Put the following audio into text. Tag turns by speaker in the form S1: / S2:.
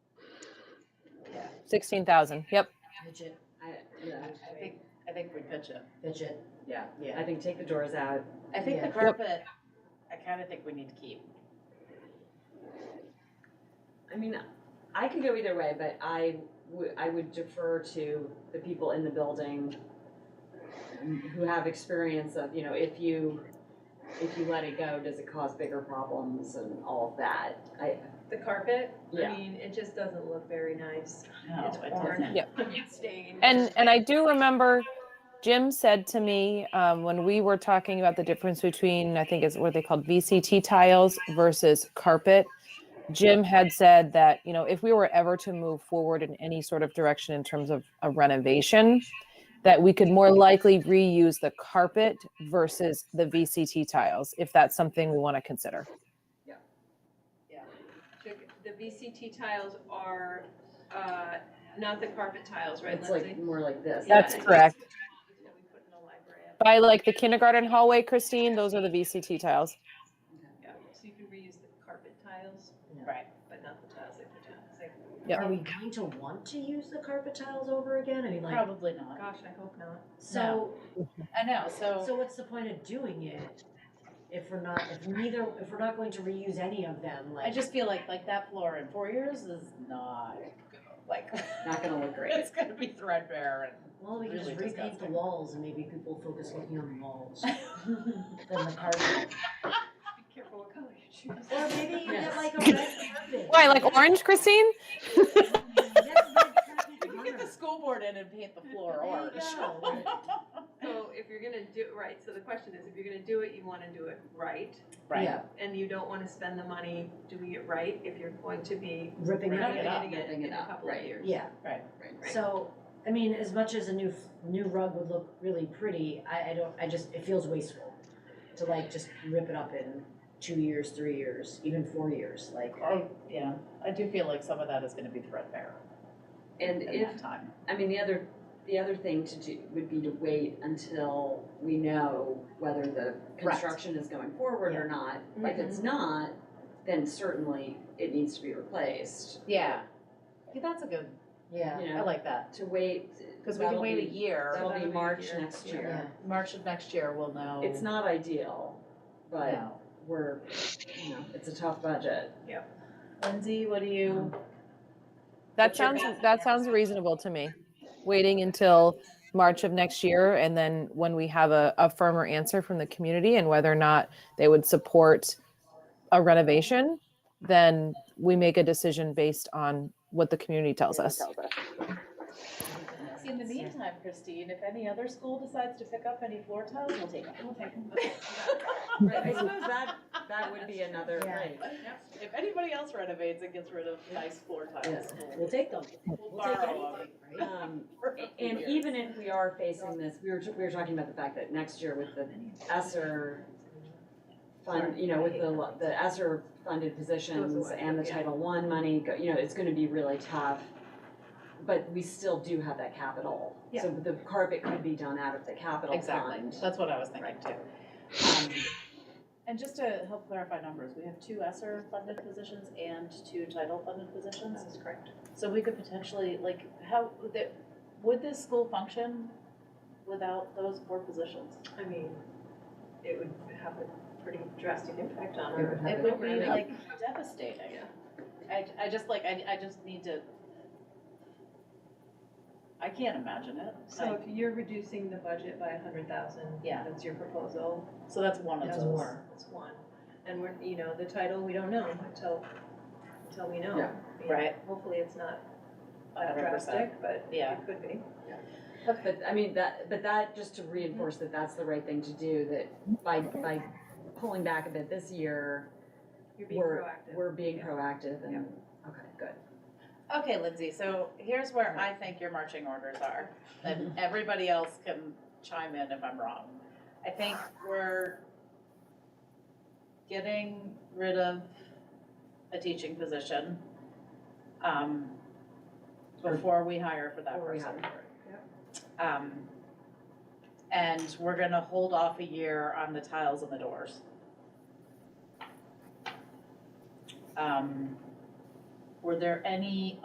S1: Sixteen thousand, yep.
S2: Fidget,
S3: I,
S2: yeah, I think, I think we pitch it,
S3: fidget.
S2: yeah,
S3: I
S2: yeah.
S3: think take the doors out.
S2: I think the
S3: Yeah.
S2: carpet, I kind of think we need to keep.
S3: I mean, I could go either way, but I would, I would defer to the people in the building who have experience of, you know, if you, if you let it go, does it cause bigger problems and all of that? I,
S4: The carpet,
S3: Yeah.
S4: I mean, it just doesn't look very nice.
S2: No,
S4: It's
S2: it
S4: worn.
S2: doesn't.
S1: Yeah.
S4: It's stained.
S1: And and I do remember Jim said to me um, when we were talking about the difference between I think is what they called VCT tiles versus carpet. Jim had said that you know if we were ever to move forward in any sort of direction in terms of a renovation, that we could more likely reuse the carpet versus the VCT tiles if that's something we want to consider.
S4: The VCT tiles are, uh, not the carpet tiles, right,
S3: it's
S4: Lindsay?
S3: like, more like this.
S4: Yeah,
S1: That's
S4: I think
S1: correct.
S4: it's the ones that we put in the library.
S1: By like the kindergarten hallway, Christine, those are the VCT tiles.
S4: Yeah, So you can reuse the carpet tiles,
S2: Right,
S4: but not the tiles, like the tiles, like, oh
S1: Yep.
S5: Are we going to want to use the carpet tiles over again? I mean, like,
S2: probably not.
S4: gosh, I hope not.
S5: so,
S2: I know, so,
S5: so what's the point of doing it? If we're not, if neither, if we're not going to reuse any of them, like.
S2: I just feel like, like that floor in four years is not, like,
S3: Not gonna look great.
S2: it's gonna be threadbare
S5: Well, we can just
S2: really
S5: repaint the
S2: disgusting.
S5: walls and maybe people focus looking on the walls than the carpet.
S4: Be careful what color you choose.
S5: Or maybe you get
S2: Yes.
S5: like a red carpet.
S1: Why, like orange, Christine?
S2: and. Get the school board in and paint the floor orange.
S4: So if you're gonna do, right, so the question is, if you're gonna do it, you wanna do it right,
S2: Right.
S3: Yeah,
S4: and you don't wanna spend the money doing it right if you're going to be
S5: Ripping
S2: Ripping
S5: it
S2: it
S5: up.
S4: renovating it
S3: ripping it
S4: in a
S3: up,
S4: couple of
S3: right.
S4: years.
S5: Yeah.
S2: Right,
S3: right,
S4: right.
S5: So, I mean, as much as a new, new rug would look really pretty, I, I don't, I just, it feels wasteful to like just rip it up in two years, three years, even four years, like.
S2: I, Oh, yeah, I do feel like some of that is gonna be threadbare
S3: and
S2: in
S3: if
S2: that time.
S3: I mean, the other, the other thing to do would be to wait until we know whether the construction is going forward or not. If it's
S2: Mm-hmm.
S3: not, then certainly it needs to be replaced,
S2: Yeah. Yeah, that's a good,
S5: Yeah.
S3: you
S2: I
S3: know,
S2: like that,
S3: to wait.
S2: cause we can
S3: that'll
S2: wait a
S3: be-
S2: year,
S3: That'll be
S4: That'll be
S3: March
S4: here.
S3: next
S4: Yeah.
S3: year.
S2: March of next year, we'll know.
S3: It's not ideal, but
S2: No.
S3: we're, you know, it's a tough budget.
S2: Lindsay, what do you?
S1: That
S2: What's your
S1: sounds,
S2: best
S1: that sounds reasonable to me. Waiting until March of next year and then when we have a, a firmer answer from the community and whether or not they would support a renovation, then we make a decision based on what the community tells us.
S6: In the meantime, Christine, if any other school decides to pick up any floor tiles, we'll take them. We'll take them.
S3: I suppose that, that would be another,
S5: Yeah.
S3: right,
S6: If anybody else renovates and gets rid of nice floor tiles,
S5: We'll take them,
S6: we'll
S5: we'll take
S6: borrow them.
S5: anything, right?
S3: um,
S6: for a few
S3: And
S6: years.
S3: even if we are facing this, we were, t- we were talking about the fact that next year with the ESSER fund, you know, with the, lo- the ESSER funded positions and the Title I money, go- you know, it's gonna be really tough. But we still do have that capital. So the carpet could be done out of the capital
S6: Exactly,
S3: fund.
S6: that's what I was thinking too.
S3: Um,
S6: And just to help clarify numbers, we have two ESSER funded positions and two title funded positions.
S4: That's correct.
S6: So we could potentially, like, how, would the- would this school function without those four positions?
S4: I mean, it would have a pretty drastic impact on
S3: It would
S4: our.
S3: have
S6: It would be
S4: programming.
S6: like devastating. I, I just like, I, I just need to. I can't imagine it.
S4: So if you're reducing the budget by a hundred thousand,
S6: Yeah.
S4: that's your proposal,
S6: So that's one of
S4: that's
S6: those.
S4: one, that's one. And we're, you know, the title, we don't know until, until we know.
S3: Yeah.
S4: You know,
S6: Right.
S4: Hopefully it's not
S6: A hundred percent.
S4: drastic, but
S6: Yeah.
S4: it could be.
S3: But, I mean, that, but that, just to reinforce that that's the right thing to do, that by, by pulling back a bit this year,
S4: You're being
S3: we're,
S4: proactive.
S3: we're being
S6: Yeah.
S3: proactive and, okay, good.
S6: Okay, Lindsay, so here's where I think your marching orders are, and everybody else can chime in if I'm wrong. I think we're getting rid of a teaching position, um, before we hire for that
S3: Before we
S6: person. Um, and we're gonna hold off a year on the tiles and the doors. Um, were there any